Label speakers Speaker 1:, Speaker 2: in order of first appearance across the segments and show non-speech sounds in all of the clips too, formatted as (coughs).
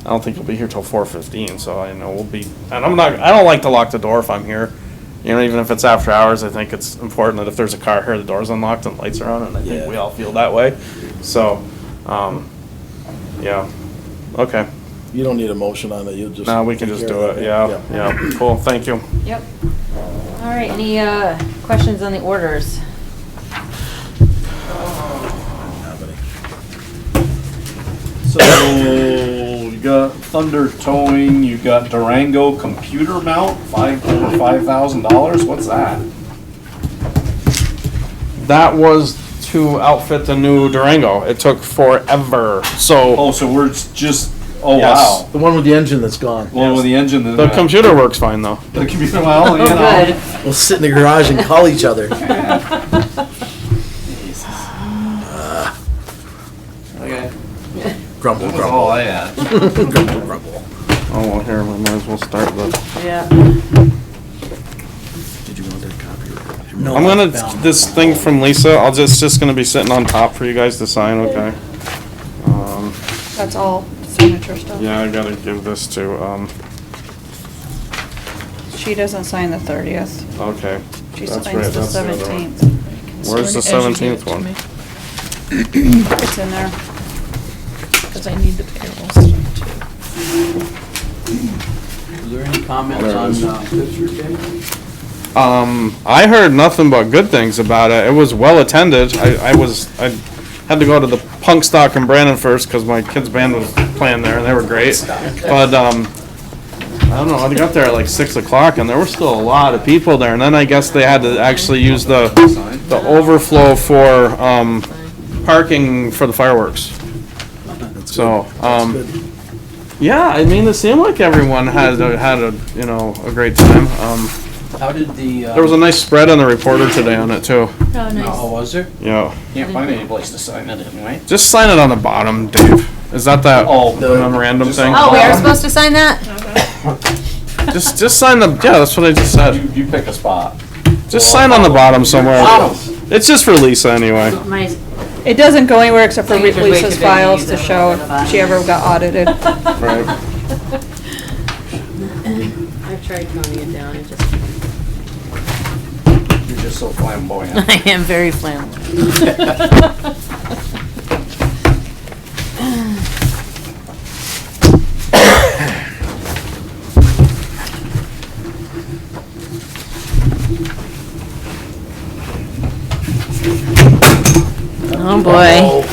Speaker 1: I don't think he'll be here till four fifteen, so I know we'll be, and I'm not, I don't like to lock the door if I'm here. You know, even if it's after hours, I think it's important that if there's a car here, the door's unlocked and lights are on, and I think
Speaker 2: Yeah.
Speaker 1: we all feel that way. So, um, yeah, okay.
Speaker 2: You don't need a motion on it, you'll just.
Speaker 1: Now we can
Speaker 2: take
Speaker 1: just
Speaker 2: care
Speaker 1: do
Speaker 2: of
Speaker 1: it, yeah, yeah, cool, thank you.
Speaker 3: Yep. All right, any uh, questions on the orders?
Speaker 4: So you got Thunder Towing, you got Durango computer mount, five over five thousand dollars. What's that?
Speaker 1: That was to outfit the new Durango. It took forever, so
Speaker 4: Oh, so we're just oh
Speaker 1: Yes.
Speaker 4: wow.
Speaker 2: The one with the engine that's gone.
Speaker 4: Well, with the engine, the,
Speaker 1: the computer works fine though.
Speaker 4: (laughs) the computer mount. You
Speaker 3: Oh,
Speaker 4: know.
Speaker 3: (laughs) good.
Speaker 2: We'll sit in the garage and call each other.
Speaker 1: (laughs)
Speaker 4: Okay,
Speaker 2: Grumble,
Speaker 4: that was
Speaker 2: grumble,
Speaker 4: all I had.
Speaker 2: (laughs) grumble, grumble.
Speaker 1: Oh, well, here, we might as well start the,
Speaker 3: Yeah.
Speaker 5: Oh,
Speaker 2: Did you want that copy?
Speaker 1: I'm gonna, this thing
Speaker 2: (laughs)
Speaker 1: from Lisa, I'll just, just gonna be sitting on top for you guys to sign, okay? Um,
Speaker 6: That's all signature stuff.
Speaker 1: yeah, I gotta give this to, um,
Speaker 6: She doesn't sign the thirtieth.
Speaker 1: okay.
Speaker 6: She
Speaker 1: That's
Speaker 6: signs
Speaker 1: right,
Speaker 6: the
Speaker 1: that's other one.
Speaker 6: seventeenth.
Speaker 1: Where's the 17th one?
Speaker 6: It's in there.
Speaker 5: Because I need the payroll stuff too.
Speaker 7: Is there any comments
Speaker 1: There it
Speaker 7: on
Speaker 1: is.
Speaker 7: uh, Pittsburgh Day?
Speaker 1: Um, I heard nothing but good things about it. It was well attended. I, I was, I had to go to the punk stock in Brandon first because my kids' band was playing there and they were great. But, um, I don't know, I got there at like six o'clock and there were still a lot of people there. And then I guess they had to actually use the, the overflow for, um, parking for the fireworks. So, um, yeah, I mean, it seemed like everyone had, a- had a, you know, a great time. Um,
Speaker 7: How did the? uh,
Speaker 1: there was a nice spread on the reporter today on it too.
Speaker 5: Oh,
Speaker 7: Oh, was there?
Speaker 1: Yeah.
Speaker 4: Can't find any place to sign it in, right?
Speaker 1: Just sign it on the bottom, Dave. Is that that
Speaker 4: Oh, the-
Speaker 1: memorandum
Speaker 4: just-
Speaker 1: thing?
Speaker 3: Oh, we are supposed to sign that?
Speaker 1: Just just sign the yeah, that's what I just said.
Speaker 4: You, you pick a spot.
Speaker 1: Just sign on the bottom somewhere.
Speaker 4: Oh.
Speaker 1: It's just for Lisa anyway.
Speaker 3: My
Speaker 6: It doesn't go anywhere except for
Speaker 3: So you just wait
Speaker 6: Lisa's
Speaker 3: till Vicky
Speaker 6: files to
Speaker 3: uses
Speaker 6: show
Speaker 3: them and
Speaker 6: if she ever got
Speaker 3: (laughs)
Speaker 6: audited.
Speaker 1: Right.
Speaker 5: I've tried toning it down, it
Speaker 3: (laughs)
Speaker 5: just.
Speaker 4: You're just so flamboyant.
Speaker 5: I am
Speaker 3: (coughs)
Speaker 5: very flammable. Oh, boy.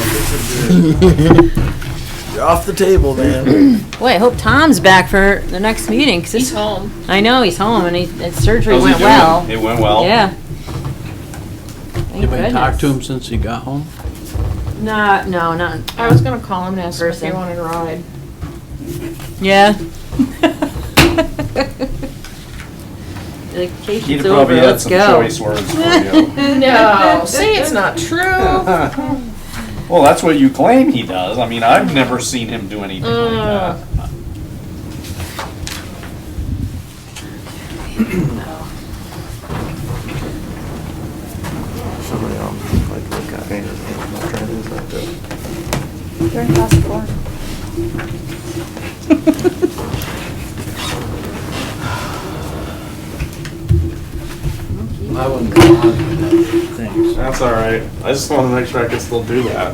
Speaker 2: (laughs) You're off the table, man.
Speaker 3: Boy, I hope Tom's back for the next meeting, 'cause
Speaker 5: He's
Speaker 3: it's,
Speaker 5: home.
Speaker 3: I know, he's home, and he, that surgery
Speaker 4: How's he
Speaker 3: went
Speaker 4: doing?
Speaker 3: well.
Speaker 4: It went well.
Speaker 3: Yeah. Thank
Speaker 7: Anybody talked to
Speaker 3: goodness.
Speaker 7: him since he got home?
Speaker 3: Nah, no, not,
Speaker 5: I was gonna call him and ask him if he
Speaker 3: Person.
Speaker 5: wanted a ride. (laughs)
Speaker 3: yeah. The
Speaker 4: He'd
Speaker 3: vacation's over,
Speaker 4: probably had
Speaker 3: let's
Speaker 4: some
Speaker 3: go.
Speaker 4: choice words for you. (laughs)
Speaker 3: (laughs)
Speaker 5: No, say it's not true.
Speaker 4: Well, that's what you claim he does. I mean, I've never seen him do anything like that.
Speaker 1: Somebody um like look at me. I'm not trying to use that, too.
Speaker 6: They're in class four.
Speaker 7: I wouldn't go on.
Speaker 1: That's alright. I just wanna make sure I can still do that.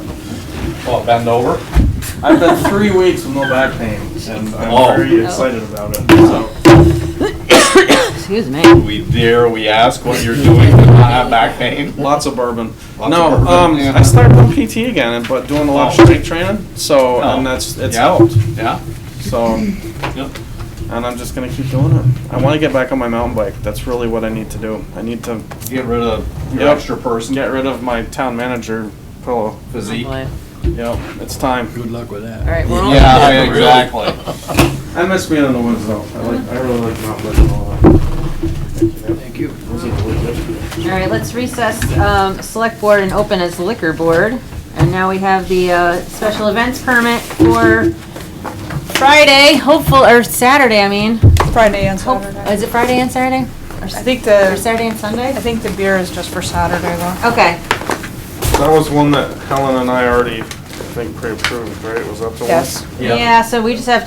Speaker 4: Oh, bend over?
Speaker 1: I've been three weeks with no back pain and I'm
Speaker 4: Oh.
Speaker 1: very excited about it. So
Speaker 3: Excuse me.
Speaker 4: Do we dare we ask what you're doing to not have back pain?
Speaker 1: lots of bourbon.
Speaker 4: Lots
Speaker 1: no,
Speaker 4: of bourbon,
Speaker 1: um
Speaker 4: yeah.
Speaker 1: I started on PT again but doing a lot
Speaker 4: Oh.
Speaker 1: of strength training. So and that's it's
Speaker 4: Yeah.
Speaker 1: helped.
Speaker 4: Yeah?
Speaker 1: So,
Speaker 4: Yep.
Speaker 1: and I'm just gonna keep doing it. I want to get back on my mountain bike. That's really what I need to do. I need to
Speaker 4: Get rid of your
Speaker 1: Yep.
Speaker 4: extra person
Speaker 1: get rid of my town manager pillow.
Speaker 4: physique.
Speaker 3: Boy.
Speaker 1: Yep, it's time.
Speaker 7: Good luck with
Speaker 3: All
Speaker 7: that.
Speaker 3: right, we're all.
Speaker 4: Yeah, exactly.
Speaker 1: I miss being in the woods though. I like, I really like mountain biking a lot.
Speaker 7: Thank you.
Speaker 3: All right, let's recess, um, select board and open as liquor board. And now we have the, uh, special events permit for Friday, hopeful, or Saturday, I mean.
Speaker 6: Friday and
Speaker 3: Hope-
Speaker 6: Saturday.
Speaker 3: Is it Friday and Saturday? Or
Speaker 6: I
Speaker 3: s-
Speaker 6: think
Speaker 3: Or
Speaker 6: the,
Speaker 3: Saturday and
Speaker 6: I
Speaker 3: Sunday?
Speaker 6: think the beer is just for Saturday though.
Speaker 3: Okay,
Speaker 1: That was one that Helen and I already, I think, pre-approved, right? Was that the one?
Speaker 6: Yes.
Speaker 3: yeah, so we just have